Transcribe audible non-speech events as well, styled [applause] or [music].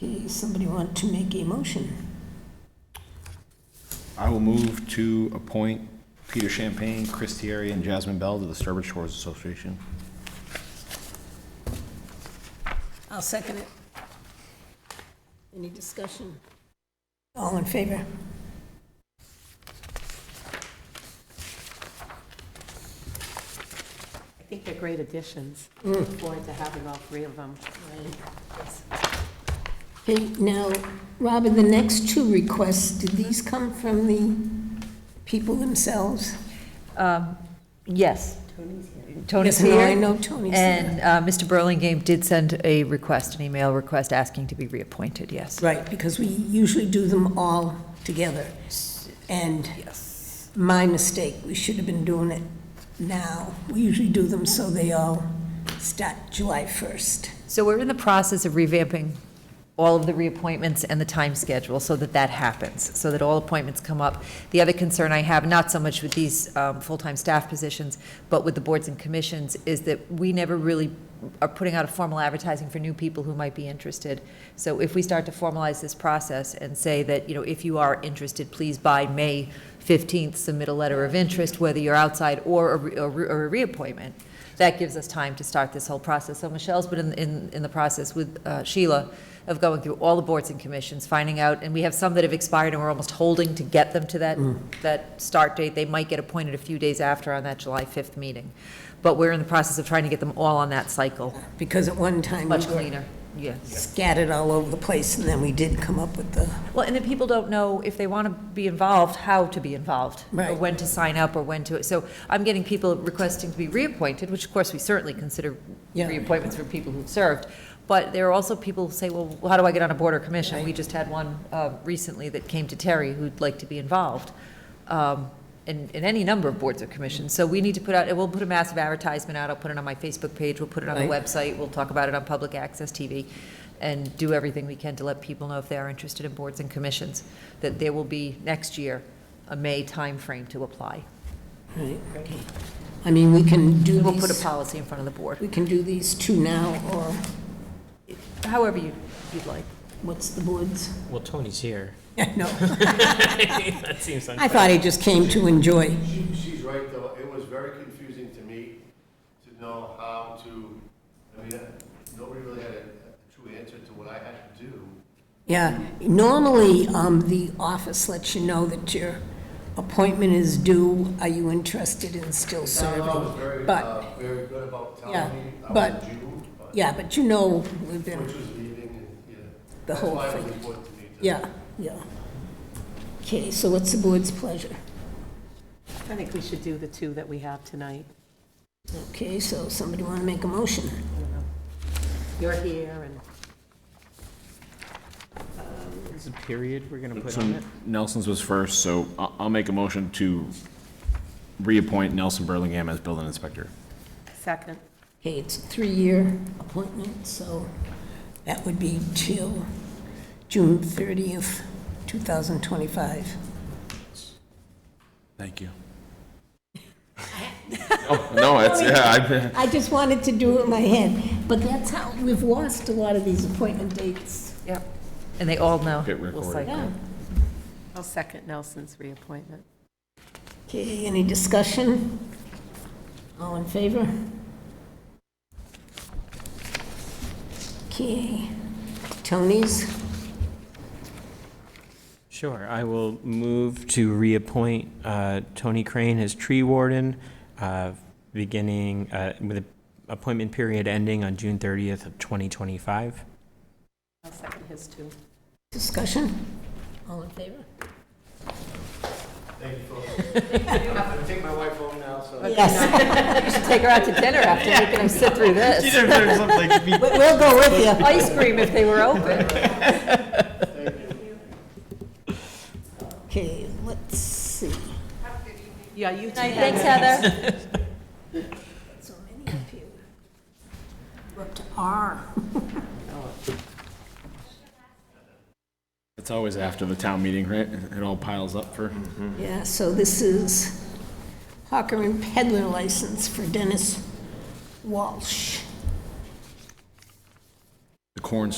Does somebody want to make a motion? I will move to appoint Peter Champagne, Chris Thierry, and Jasmine Bell to the Sturbridge Shores Association. I'll second it. Any discussion? All in favor? I think they're great additions. Look forward to having all three of them. Okay, now, Robin, the next two requests, did these come from the people themselves? Um, Yes. Tony's Yes, here. no, I know Tony's here. And uh, Mr. Burlingame did send a request, an email request asking to be reappointed, yes. Right, because we usually do them all together. And my mistake, we should have been doing it now. We usually do them so they all start July 1st. So we're in the process of revamping all of the reappointments and the time schedule so that that happens, so that all appointments come up. The other concern I have, not so much with these um, full-time staff positions, but with the boards and commissions, is that we never really are putting out a formal advertising for new people who might be interested. So if we start to formalize this process and say that, you know, if you are interested, please by May 15th, submit a letter of interest, whether you're outside or a re- or re- or a reappointment, that gives us time to start this whole process. So Michelle's been in, in, in the process with uh, Sheila of going through all the boards and commissions, finding out, and we have some that have expired and we're almost holding to get them to that, that start date. They might get appointed a few days after on that July 5th meeting. But we're in the process of trying to get them all on that cycle, Because at one time we much were cleaner, yes. scattered all over the place, and then we did come up with the, Well, and then people don't know if they want to be involved, how to be involved. Or Right. when to sign up or when to, so I'm getting people requesting to be reappointed, which of course we certainly consider Yeah. reappointments for people who've served. But there are also people who say, well, how do I get on a board or commission? We just had one uh, recently that came to Terry who'd like to be involved um, in, in any number of boards or commissions. So we need to put out, and we'll put a massive advertisement out, I'll put it on my Facebook page, we'll put it on the Right. website, we'll talk about it on public access TV, and do everything we can to let people know if they are interested in boards and commissions, that there will be next year a May timeframe to apply. right? I mean, we can do We'll put a these, policy in front of the board, we can do these two now, or however you- you'd like. what's the [laughs] board's? Well, Tony's here. No, that seems I thought he just came to enjoy. She, she's right, though. It was very confusing to me to know how to, I mean, uh, nobody really had a a true answer to what I had to do. Yeah, normally, um, the office lets you know that your appointment is due, are you interested in still The town hall was serving? very, But, uh, very good about Yeah, telling me I but- was due, but yeah, but you know, we've been, which was leaving, and, yeah. The whole That's why it was thing. important to me to. yeah, yeah. Okay, so what's the board's pleasure? I think we should do the two that we have tonight. Okay, so somebody want to make a motion? You're here, and There's a period we're going to put So on it. Um, Nelson's was first, so I- I'll make a motion to reappoint Nelson Burlingame as building inspector. second, Okay, it's a three-year appointment, so that would be till June 30th, 2025. Thank you. Oh, No, it's, yeah, I just wanted to do it in my head, but that's how, we've lost a lot of these appointment dates. Yep. And they all know. I get We'll recorded. cycle. I'll second Nelson's reappointment. Okay, any discussion? All in favor? Okay, Tony's, Sure. I will move to reappoint uh, Tony Crane as tree warden, uh, beginning uh, with the appointment period ending on June 30th of 2025. I'll second his two. discussion? All in favor? Thank [laughs] you, folks. I'm gonna take my wife home now, so. Yes. You should take her out to dinner after making them sit through this. [laughs] We'll go with you. Ice cream if they were open. Okay, let's see. Yeah, you two. Thanks, Heather. So many of you. We're up to R. It's always after the town meeting, right? It all piles up for. Yeah, so this is hawker and peddler license for Dennis Walsh. The corn